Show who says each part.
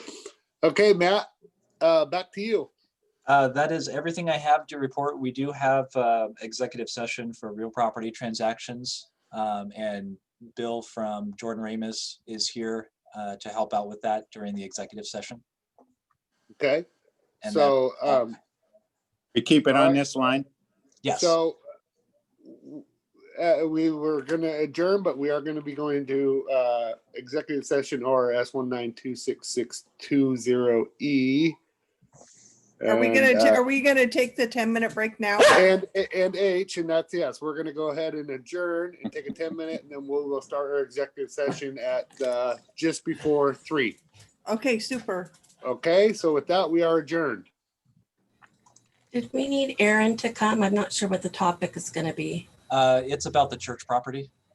Speaker 1: Okay, Matt, uh, back to you.
Speaker 2: Uh, That is everything I have to report. We do have uh, executive session for real property transactions. um, And Bill from Jordan Ramus is here uh, to help out with that during the executive session.
Speaker 1: Okay,
Speaker 2: And that-
Speaker 1: so, um,
Speaker 3: We keep it
Speaker 1: Alright.
Speaker 3: on this line?
Speaker 2: yes,
Speaker 1: so uh, we were gonna adjourn, but we are gonna be going to, uh, executive session RS one nine two six six two zero E. uh,
Speaker 4: Are we gonna, ta- are we gonna take the ten minute break now?
Speaker 1: And, and H, and that's yes, we're gonna go ahead and adjourn and take a ten minute, and then we'll, we'll start our executive session at, uh, just before three.
Speaker 4: Okay, super.
Speaker 1: Okay, so with that, we are adjourned.
Speaker 5: Did we need Aaron to come? I'm not sure what the topic is going to be.
Speaker 2: Uh, it's about the church property.